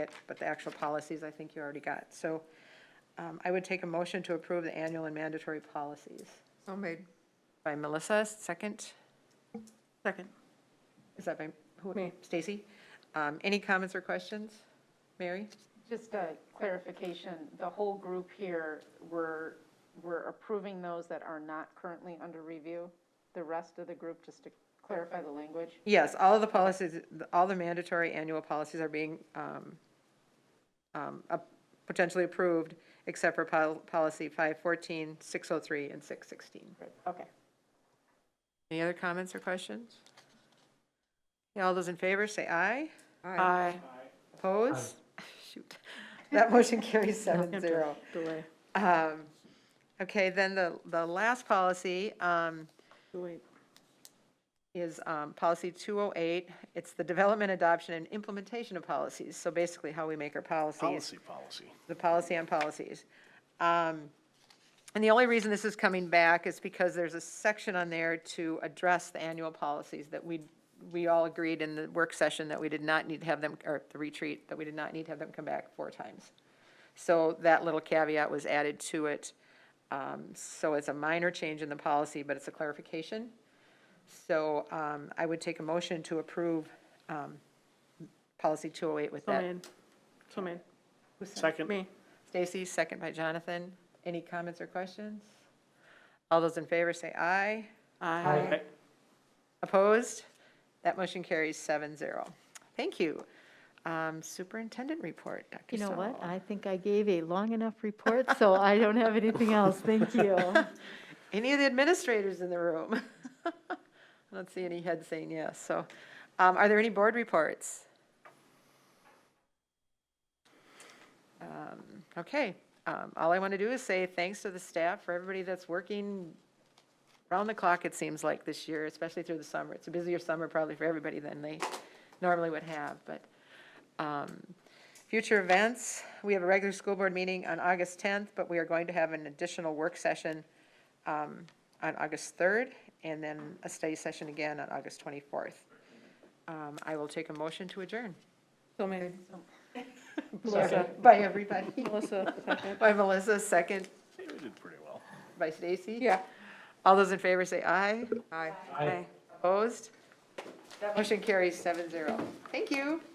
it, but the actual policies, I think you already got. So um, I would take a motion to approve the annual and mandatory policies. So made. By Melissa, second. Second. Is that by, who? Me. Stacy? Um, Any comments or questions? Mary? Just a clarification, the whole group here, we're, we're approving those that are not currently under review? The rest of the group, just to clarify the language? Yes, all of the policies, all the mandatory annual policies are being um, um, up- potentially approved, except for pol- policy 514, 603, and 616. Right, Okay. Any other comments or questions? Yeah, All those in favor, say aye. Aye. Opposed? Shoot. That motion carries seven zero. Delay. Um, Okay, then the, the last policy um, Delete. is um, policy 208. It's the development, adoption, and implementation of policies. So basically how we make our policies, Policy, policy. the policy on policies. Um, And the only reason this is coming back is because there's a section on there to address the annual policies that we, we all agreed in the work session that we did not need to have them, or the retreat, that we did not need to have them come back four times. So that little caveat was added to it. Um, So it's a minor change in the policy, but it's a clarification. So um, I would take a motion to approve um, policy 208 with So that. made. So made. Second, Me. Stacy, second by Jonathan. Any comments or questions? All those in favor say aye. Aye. Opposed? That motion carries seven zero. Thank you. Um, Superintendent report, Dr. You know what? Sowell. I think I gave a long enough report, so I don't have anything else. Thank you. Any of the administrators in the room? I don't see any heads saying yes, so. um, Are there any board reports? Um, Okay, um, all I want to do is say thanks to the staff for everybody that's working round the clock, it seems like, this year, especially through the summer. It's a busier summer probably for everybody than they normally would have, but um, Future events, we have a regular school board meeting on August 10th, but we are going to have an additional work session um, on August 3rd, and then a study session again on August 24th. Um, I will take a motion to adjourn. So made. Sorry, By everybody. Melissa, second. By Melissa, second, we did pretty well. by Stacy. Yeah. All those in favor say aye. Aye. Aye. Opposed? That motion carries seven zero. Thank you.